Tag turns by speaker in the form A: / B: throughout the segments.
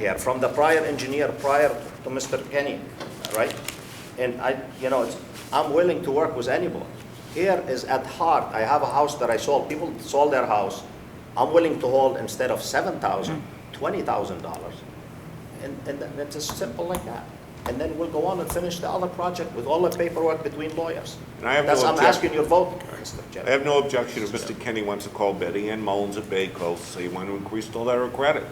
A: Yeah, from the prior engineer, prior to Mr. Kenny, right? And I, you know, it's, I'm willing to work with anybody. Here is at heart, I have a house that I sold, people sold their house. I'm willing to hold instead of seven thousand, twenty thousand dollars. And, and th- it's as simple like that. And then we'll go on and finish the other project with all the paperwork between lawyers.
B: And I have no
A: That's, I'm
B: objection.
A: asking your vote, Mr.
B: I
A: Chairman.
B: have no objection if Mr. Kenny wants to call Betty Ann Mullins at Bay Coast, say you want to increase the letter of credit.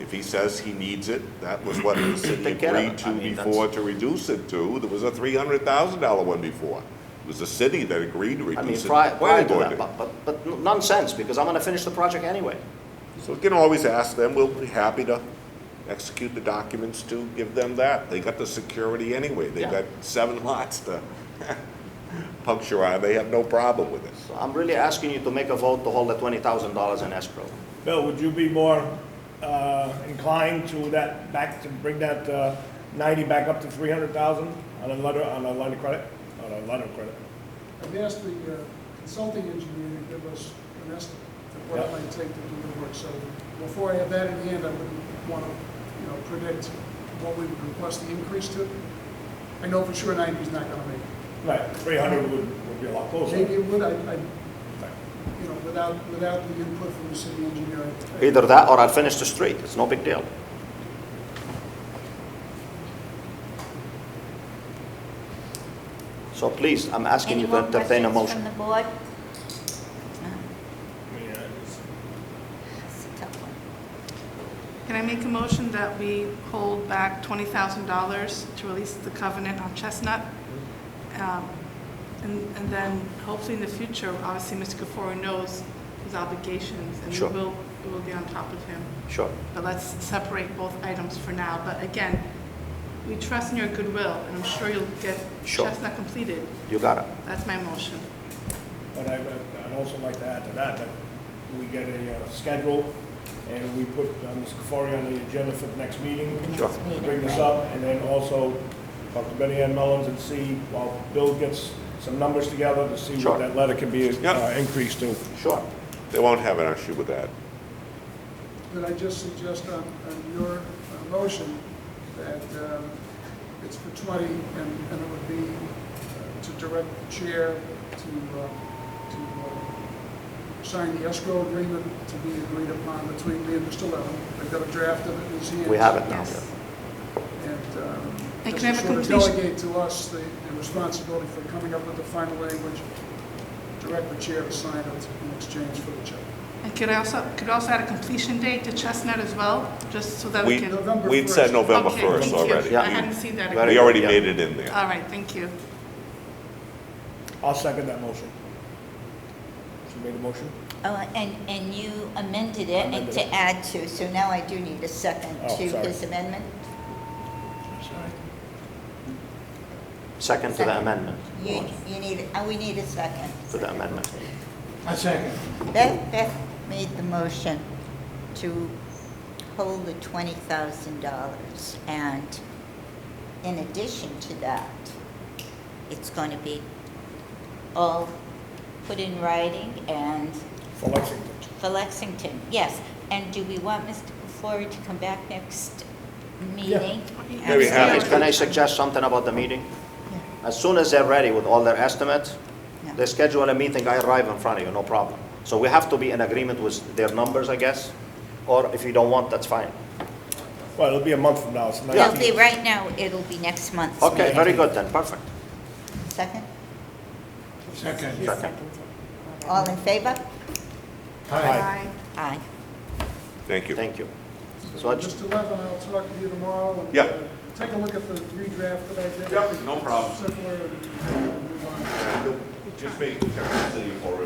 B: If he says he needs it, that was what the city
A: Take care of it.
B: agreed
A: I
B: to
A: mean, that's-
B: before to reduce it to. There was a three hundred thousand dollar one before. It was the city that agreed to
A: I mean,
B: reduce it.
A: prior,
B: The
A: prior
B: planning
A: to
B: board
A: that, but, but, but nonsense, because I'm gonna finish the project anyway.
B: did. So you can always ask them, we'll be happy to execute the documents to give them that. They got the security anyway. They
A: Yeah.
B: got seven lots to puncture on. They have no problem with it.
A: So I'm really asking you to make a vote to hold the twenty thousand dollars in escrow.
C: Bill, would you be more uh, inclined to that, back, to bring that uh, 90 back up to 300,000 on a letter, on a line of credit, on a letter of credit?
D: I've asked the uh, consulting engineer to give us an estimate of what it
C: Yep.
D: might take to do the work. So before I have that in hand, I wouldn't want to, you know, predict what we would request the increase to. I know for sure 90 is not going to make it.
C: Right, 300 would, would be a lot closer.
D: Maybe it would, I, I,
C: Right.
D: you know, without, without the input from the city engineer. I-
A: Either that or I'll finish the street, it's no big deal. So please, I'm asking you to entertain a motion.
E: Any more questions
C: I mean, uh, it's-
E: from the board? It's a tough one.
F: Can I make a motion that we hold back $20,000 to release the covenant on Chestnut? Um, And and then hopefully in the future, obviously, Mr. Kefori knows his obligations, and
A: Sure.
F: we will, we will be on top of him.
A: Sure.
F: But let's separate both items for now. But again, we trust in your goodwill, and I'm sure you'll get
A: Sure.
F: Chestnut completed.
A: You got it.
F: That's my motion.
C: But I, I'd also like to add to that, that we get a uh, schedule, and we put uh, Ms. Kefari on the agenda for the next meeting.
A: Sure.
E: Next meeting,
C: Bring this
E: right.
C: up, and then also talk to Betty Ann Mullins and see, while Bill gets some numbers together, to see
A: Sure.
C: what that letter can be uh,
B: Yep.
C: increased to.
A: Sure.
B: They won't have an issue with that.
D: Could I just suggest on, on your uh, motion that um, it's for 20 and, and it would be uh, to direct the chair to, uh, to uh, sign the escrow agreement to be agreed upon between me and Mr. Levin. I've got a draft of it in his hands.
A: We have it now.
F: Yes.
D: And um, just
F: And can I
D: to
F: have a
D: sort of
F: completion-
D: delegate to us the the responsibility for coming up with the final language, direct the chair to sign it in exchange for the check.
F: And could I also, could also add a completion date to Chestnut as well, just so that we
B: We,
F: can...
D: November
B: we'd said
D: 1st.
B: November
F: Okay,
B: first
F: thank you. Uh,
B: already.
F: I hadn't seen that.
A: Very
B: We
A: good,
B: already
A: yeah.
B: made it in there.
F: All right, thank you.
C: I'll second that motion. She made a motion?
E: Oh, and, and you amended it and
C: Amended
E: to
C: it.
E: add to, so now I do need a second
C: Oh,
E: to
C: sorry.
E: his amendment?
A: Second to the
E: Second.
A: amendment.
E: You, you need, oh, we need a second.
A: To the amendment.
D: I second.
E: Beth, Beth made the motion to hold the twenty thousand dollars, and in addition to that, it's gonna be all put in writing and
C: For Lexington.
E: for Lexington, yes. And do we want Mr. Kufori to come back next meeting?
B: Very happy.
A: Can I suggest something about the meeting? As soon as they're ready with all their estimates,
E: Yeah.
A: They schedule a meeting, I arrive in front of you, no problem. So we have to be in agreement with their numbers, I guess, or if you don't want, that's fine.
C: Well, it'll be a month from now, it's
E: No,
C: nineteen.
E: they, right now, it'll be next month.
A: Okay, very good then, perfect.
E: Second?
D: Second.
A: Second.
E: All in favor?
F: Aye.
E: Aye.
B: Thank you.
A: Thank you. So I just,
D: Mr. Levin, I'll talk to you tomorrow. and,
B: Yeah.
D: uh, Take a look at the redraft that I did.
B: Yeah, no problem.
D: Similar, and move
B: Just make the city or.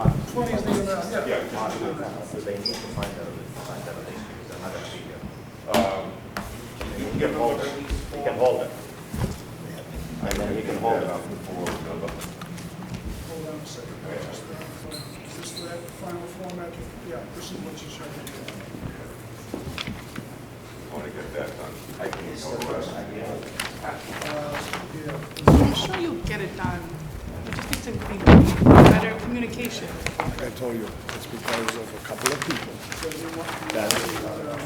D: on. 20 is the amount, yeah.
B: Yeah,
A: uh, they need to find out, find out, they're not gonna be here. Um,
B: You
A: can hold it. He can hold it. And then he can hold it.
D: Hold on a second. Just, uh, Is this the final format? Yeah, this is what you showed me.
B: I want to get that done. I can
D: Uh, yeah.
F: I'm sure you'll get it done. We just need to be better communication.
C: I told you, it's because of a couple of people.